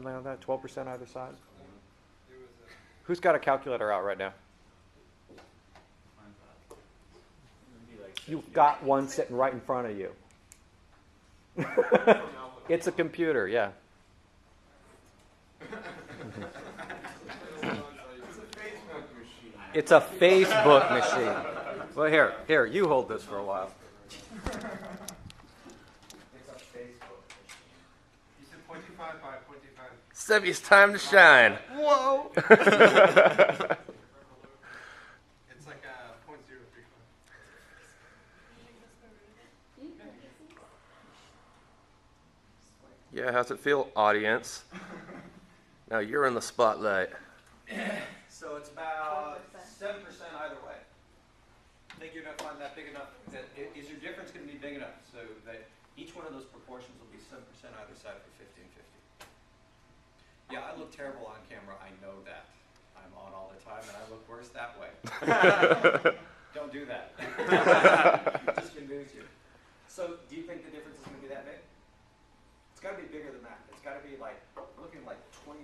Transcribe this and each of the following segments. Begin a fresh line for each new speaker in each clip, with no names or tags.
Something like that, twelve percent either side? Who's got a calculator out right now? You've got one sitting right in front of you. It's a computer, yeah. It's a Facebook machine. Well, here, here, you hold this for a while.
You said 25 by 25.
Stevie, it's time to shine.
Whoa! it's like a 0.035.
Yeah, how's it feel, audience? Now you're in the spotlight.
So it's about 7% either way. I think you're going to find that big enough. That, i- is your difference going to be big enough so that each one of those proportions will be 7% either side for 1550? Yeah, I look terrible on camera. I know that. I'm on all the time and I look worse that way. Don't do that. It just removes you. So, do you think the difference is going to be that big? It's got to be bigger than that. It's got to be like, we're looking at like 28%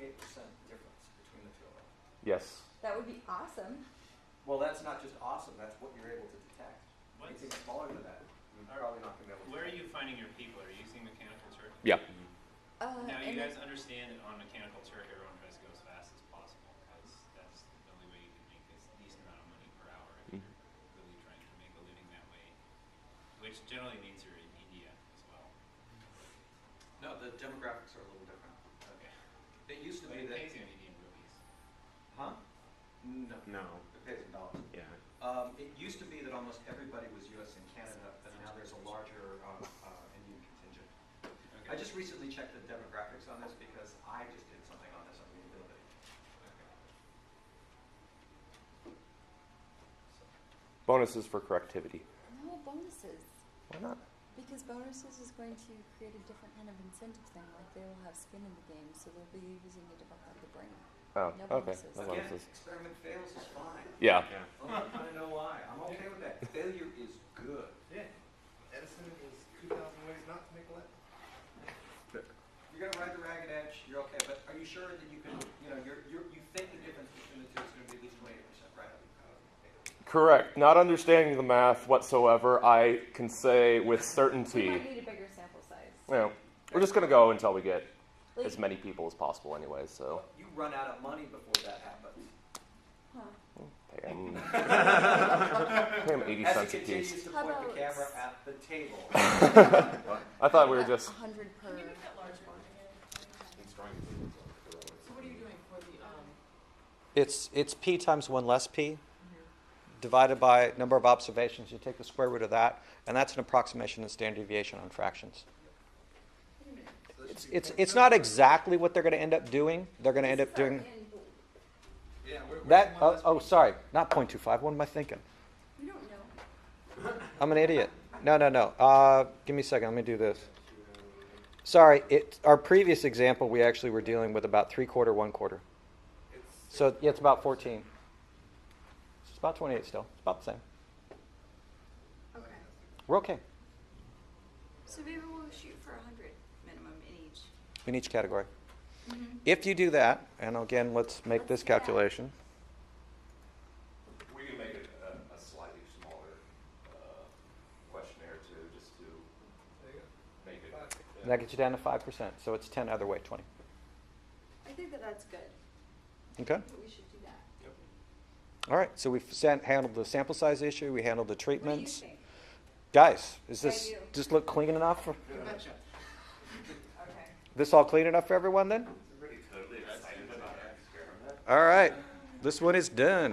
difference between the two of them.
Yes.
That would be awesome.
Well, that's not just awesome. That's what you're able to detect. Anything smaller than that, you're probably not going to be able to.
Where are you finding your people? Are you using mechanical turkey?
Yeah.
Uh,
Now, you
and
guys understand that on mechanical turkey, everyone tries to go as fast as possible because that's the only way you can make this decent amount of money per hour if you're really trying to make a living that way, which generally means you're in India as well.
No, the demographics are a little different.
Okay.
It used to
But
be
it
that.
pays you in Indian rupees.
Huh?
No.
No. It pays in dollars.
Yeah.
Um, it used to be that almost everybody was U.S. and Canada, but now there's a larger uh, uh, Indian contingent.
Okay.
I just recently checked the demographics on this because I just did something on this. I'm going to build it.
Bonuses for correctivity.
no bonuses,
Why not?
because bonuses is going to create a different kind of incentive thing. Like they will have skin in the game, so they'll be using a different part of the brain.
Oh,
No
okay.
bonuses.
No
Again,
bonuses.
experiment fails is fine.
Yeah.
Yeah.
Oh, I kind of know why. I'm okay with that. Failure is good.
Yeah. Edison is 2,000 ways not to make a lamp.
You're gonna ride the ragged edge, you're okay, but are you sure that you can, you know, you're, you're, you think the difference between the two is gonna be at least twenty-eight percent, right?
Correct. Not understanding the math whatsoever, I can say with certainty.
We might
You
need a bigger sample size.
know, we're just gonna go until we get
Like,
as many people as possible, anyway. So.
You run out of money before that happens.
huh.
Pay him, pay him 80
As
cents a
he
piece.
continues to
How
point the
about-
camera at the table.
I thought we were
About
just.
100 per.
It's, it's P times one less P, divided by number of observations, you take the square root of that, and that's an approximation in standard deviation on fractions. It's, it's, it's not exactly what they're gonna end up doing, they're gonna end up doing.
Yeah, we're, we're
That,
one
oh,
less-
oh, sorry, not point two five, what am I thinking?
We don't know.
I'm an idiot. No, no, no. Uh, give me a second. Let me do this. Sorry. It, our previous example, we actually were dealing with about three quarter, one quarter. So yeah, it's about 14. It's about 28 still. It's about the same.
Okay,
We're okay
so maybe we'll shoot for a hundred minimum in each.
in each category. Mm-hmm. If you do that, and again, let's make this calculation.
We can make it a, a slightly smaller uh, questionnaire too, just to make it. uh,
That gets you down to 5%. So it's 10 other way, 20.
I think that that's good,
Okay?
that we should do that.
All right. So we've san- handled the sample size issue. We handled the
What do you
treatments.
think?
Guys, is
Yeah,
this
you.
just look clean enough? For,
Okay.
This all clean enough for everyone then? All right, this one is done.